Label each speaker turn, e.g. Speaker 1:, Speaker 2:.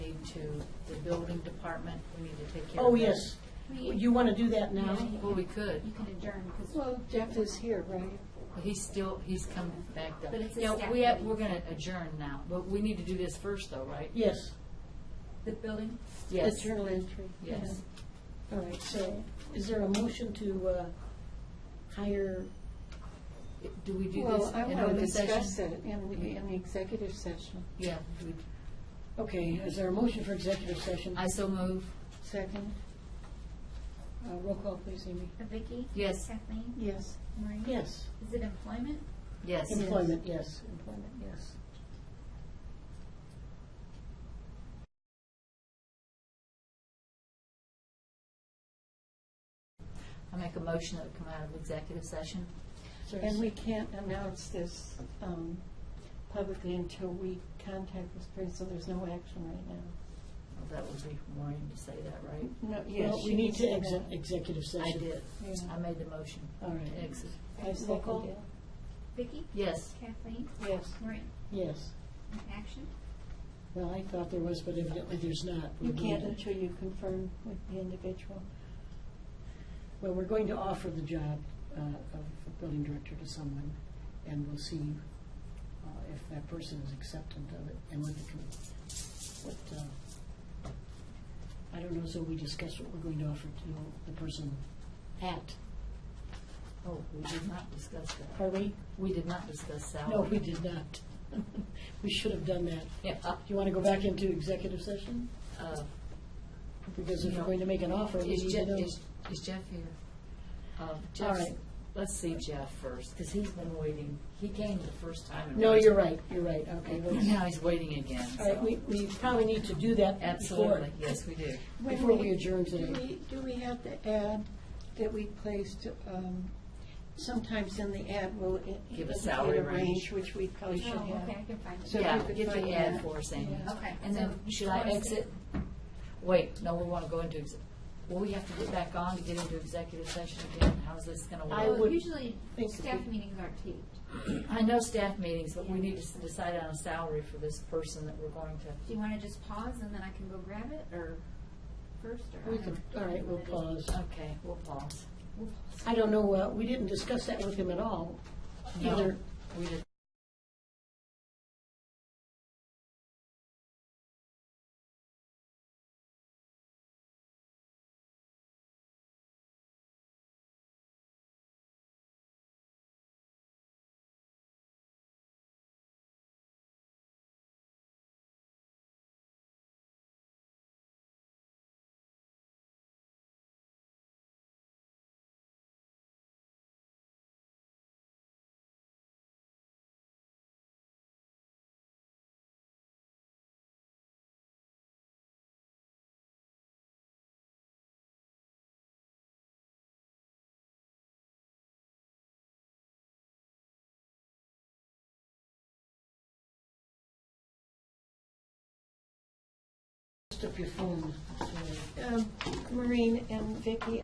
Speaker 1: to the building department, we need to take care of
Speaker 2: Oh,
Speaker 1: that.
Speaker 2: yes.
Speaker 3: We-
Speaker 2: You want to do that now?
Speaker 1: Well, we could,
Speaker 3: You can adjourn, because,
Speaker 2: Well, Jeff is here, right?
Speaker 1: but he's still, he's come back up.
Speaker 3: But it's a
Speaker 1: Yeah,
Speaker 3: staff
Speaker 1: we have,
Speaker 3: meeting.
Speaker 1: we're gonna adjourn now, but we need to do this first though, right?
Speaker 2: Yes.
Speaker 3: the building,
Speaker 1: Yes,
Speaker 2: Journal entry.
Speaker 1: yes.
Speaker 2: All right, so is there a motion to uh, hire?
Speaker 1: Do we do this
Speaker 4: Well, I
Speaker 1: in
Speaker 4: want to
Speaker 1: open
Speaker 4: discuss
Speaker 1: session?
Speaker 4: it in the, in the executive session.
Speaker 1: Yeah, we-
Speaker 2: Okay, is there a motion for executive session?
Speaker 1: I so move,
Speaker 4: Second?
Speaker 2: Uh, Roll call, please, Amy.
Speaker 3: Vicki?
Speaker 1: Yes.
Speaker 3: Kathleen?
Speaker 4: Yes.
Speaker 3: Maureen?
Speaker 2: Yes.
Speaker 3: Is it employment?
Speaker 1: yes.
Speaker 2: Employment, yes. Employment, yes.
Speaker 1: I make a motion that we come out of executive session.
Speaker 2: Is there a
Speaker 4: And we can't announce this um, publicly until we contact this person, so there's no action right now.
Speaker 1: Well, That would be Maureen to say that, right?
Speaker 4: No, yes.
Speaker 2: Well, we need to
Speaker 4: exit.
Speaker 2: exit executive
Speaker 1: I
Speaker 2: session.
Speaker 1: did.
Speaker 4: Yeah.
Speaker 1: I made the motion.
Speaker 2: All right.
Speaker 1: Exit.
Speaker 4: I second it.
Speaker 3: Vicki?
Speaker 1: Yes.
Speaker 3: Kathleen?
Speaker 4: Yes.
Speaker 3: Maureen?
Speaker 2: Yes.
Speaker 3: Action?
Speaker 2: Well, I thought there was, but evidently there's not.
Speaker 4: You
Speaker 2: We're going
Speaker 4: can't
Speaker 2: to-
Speaker 4: until you confirm with the individual.
Speaker 2: Well, we're going to offer the job uh, of building director to someone, and we'll see uh, if that person is acceptant of it, and what the, com- what, uh, I don't know, so we discuss what we're going to offer to the person at,
Speaker 1: Oh, we did not discuss that.
Speaker 2: are we?
Speaker 1: We did not discuss salary.
Speaker 2: No, we did not. We should have done that.
Speaker 1: Yeah, uh,
Speaker 2: Do you want to go back into executive session?
Speaker 1: uh,
Speaker 2: Because if
Speaker 1: No.
Speaker 2: we're going to make an offer, we
Speaker 1: Is
Speaker 2: need to
Speaker 1: Jeff,
Speaker 2: know.
Speaker 1: is is Jeff here? Uh, Jeff,
Speaker 2: right.
Speaker 1: let's see Jeff first, because he's been waiting. He came the first time. and
Speaker 2: No,
Speaker 1: raised-
Speaker 2: you're right, you're right, okay.
Speaker 1: And
Speaker 2: let's-
Speaker 1: now he's waiting again,
Speaker 2: All right, we,
Speaker 1: so.
Speaker 2: we probably need to do that before,
Speaker 1: Absolutely, yes, we do.
Speaker 4: When
Speaker 2: before we adjourn
Speaker 4: Do
Speaker 2: today.
Speaker 4: we, do we have to add that we placed, um, sometimes in the ad will. it-
Speaker 1: Give a
Speaker 4: indicate
Speaker 1: salary range.
Speaker 4: Range, which we probably should
Speaker 3: Oh,
Speaker 4: have.
Speaker 3: okay, I can find
Speaker 4: So
Speaker 3: it.
Speaker 1: Yeah,
Speaker 4: if you could
Speaker 1: get the
Speaker 4: find
Speaker 1: ad
Speaker 4: that.
Speaker 1: for us, Amy.
Speaker 4: Yeah.
Speaker 3: Okay.
Speaker 1: And then, should I exit? Wait, no, we want to go into, ex- well, we have to get back on to get into executive session again. How's this going to work?
Speaker 2: I
Speaker 3: Well,
Speaker 2: would
Speaker 3: Usually,
Speaker 2: think
Speaker 3: staff
Speaker 2: we-
Speaker 3: meetings aren't taped.
Speaker 1: I know staff meetings, but we need to s- decide on a salary for this person that we're going
Speaker 3: Do
Speaker 1: to.
Speaker 3: you want to just pause and then I can go grab it, or first, or?
Speaker 2: We
Speaker 3: I don't
Speaker 2: could,
Speaker 3: know.
Speaker 2: all right, we'll pause.
Speaker 1: Okay, we'll pause.
Speaker 2: I don't know, uh, we didn't discuss that with him at all,
Speaker 1: No,
Speaker 2: either.
Speaker 1: We did
Speaker 2: Just up your phone. so-
Speaker 4: Um, Uh, Maureen and Vicki,